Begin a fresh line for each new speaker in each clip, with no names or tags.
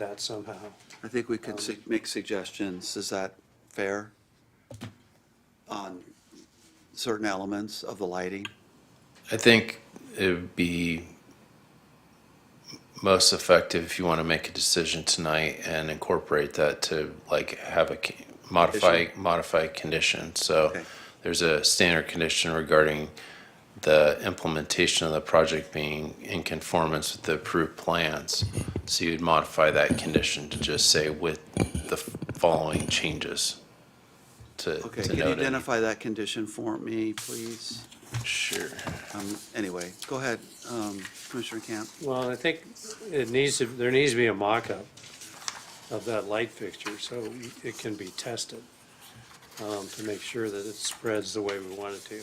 that somehow.
I think we could su- Uh, make suggestions, is that fair? On certain elements of the lighting?
I think it would be most effective if you want to make a decision tonight and incorporate that to like have a c- modify, modify condition. So
Okay.
there's a standard condition regarding the implementation of the project being in conformance with the approved plans. So you'd modify that condition to just say with the f- following changes to,
Okay,
to
can you
note it.
identify that condition for me, please?
Sure.
Um, Anyway, go ahead, um, Commissioner Camp.
Well, I think it needs to, there needs to be a mock-up of that light fixture, so it can be tested um, to make sure that it spreads the way we want it to.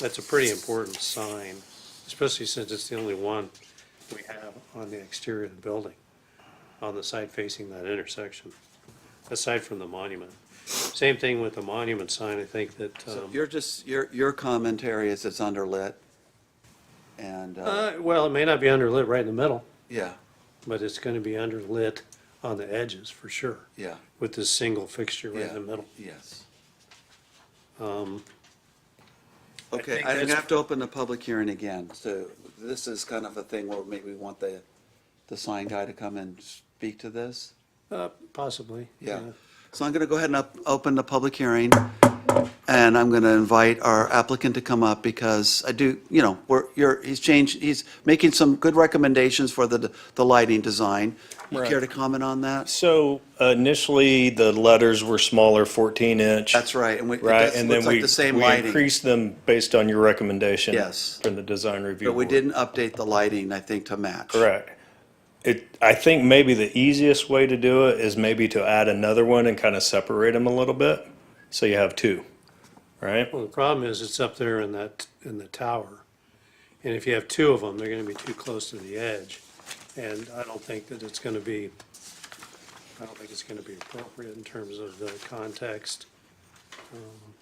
That's a pretty important sign, especially since it's the only one we have on the exterior of the building, on the side facing that intersection, aside from the monument. Same thing with the monument sign, I think that.
So
um,
you're just, your, your commentary is it's underlit, and, uh,
Uh, well, it may not be underlit right in the middle.
yeah,
but it's gonna be underlit on the edges for sure,
yeah,
with this single fixture right in
yeah,
the middle.
yes.
Um,
Okay,
think
I'm gonna
that's-
have to open the public hearing again, so this is kind of a thing where maybe we want the, the sign guy to come and speak to this?
uh, possibly.
Yeah. So I'm going to go ahead and up- open the public hearing, and I'm going to invite our applicant to come up because I do, you know, we're, you're, he's changed, he's making some good recommendations for the, the lighting design. You care to comment on that?
So initially, the letters were smaller, 14 inch.
That's right, and we, it
Right,
does-
and then
looks like
we,
the same
we
lighting,
increased them based on your recommendation.
Yes.
From the design review.
but we
board.
didn't update the lighting, I think, to match.
Correct. It, I think maybe the easiest way to do it is maybe to add another one and kind of separate them a little bit, so you have two, right?
Well, the problem is, it's up there in that, in the tower, and if you have two of them, they're gonna be too close to the edge, and I don't think that it's gonna be, I don't think it's gonna be appropriate in terms of the context. Um,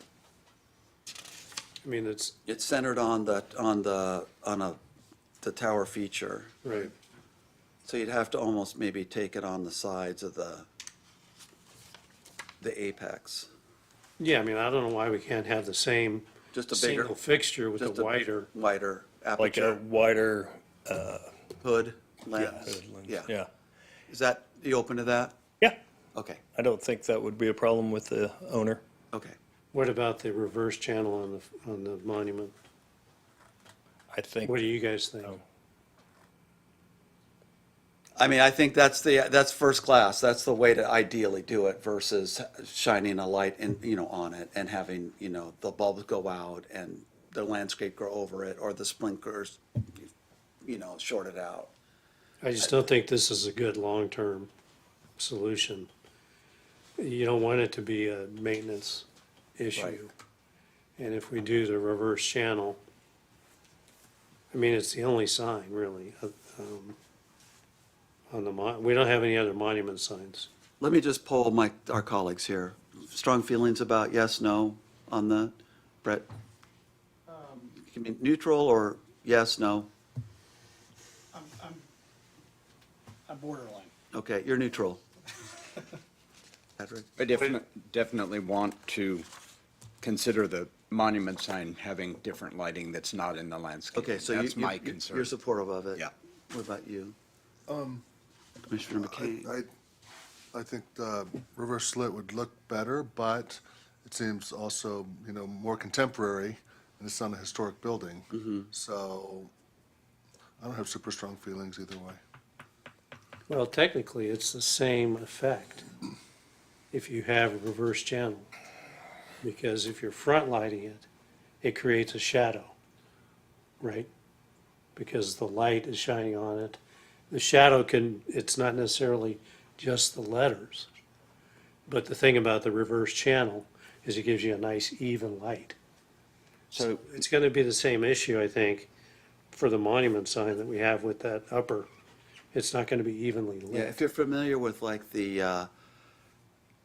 I mean, it's,
It's centered on the, on the, on a, the tower feature,
right,
so you'd have to almost maybe take it on the sides of the, the apex.
yeah, I mean, I don't know why we can't have the same
Just a bigger,
single fixture with
just
a
a
wider.
wider
Like a
aperture,
wider.
hood,
uh,
lens.
lens.
Yeah.
Yeah.
Is that, you open to that?
Yeah.
Okay,
I don't think that would be a problem with the owner.
okay.
What about the reverse channel on the, on the monument?
I think.
What do you guys think?
Oh.
I mean, I think that's the, that's first class. That's the way to ideally do it versus shining a light in, you know, on it and having, you know, the bulbs go out and the landscape grow over it or the sprinklers, you know, short it out.
I just don't think this is a good long-term solution. You don't want it to be a maintenance issue. And if we do the reverse channel, I mean, it's the only sign really, uh, um, on the mon, we don't have any other monument signs.
Let me just poll my, our colleagues here. Strong feelings about yes, no on the, Brett? You mean neutral or yes, no?
I'm, I'm, I'm borderline.
Okay, you're neutral. Patrick?
I definitely, definitely want to consider the monument sign having different lighting that's not in the landscape.
Okay, so you-
That's my
you, you're
concern.
supportive of it?
Yeah.
What about you? Commissioner McCain?
I, I- I think the reverse slit would look better, but it seems also, you know, more contemporary, and it's not a historic building. So I don't have super strong feelings either way.
Well, technically, it's the same effect if you have a reverse channel. Because if you're front lighting it, it creates a shadow, right? Because the light is shining on it. The shadow can, it's not necessarily just the letters. But the thing about the reverse channel is it gives you a nice even light.
So
It's gonna be the same issue, I think, for the monument sign that we have with that upper. It's not gonna be evenly lit.
Yeah, if you're familiar with like the, uh,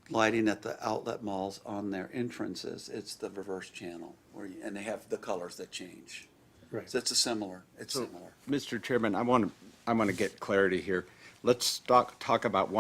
lighting at the outlet malls on their entrances, it's the reverse channel, where, you- and they have the colors that change.
Right.
So it's a similar, it's similar.
Mr. Chairman, I want to, I want to get clarity here. let's talk, talk about one.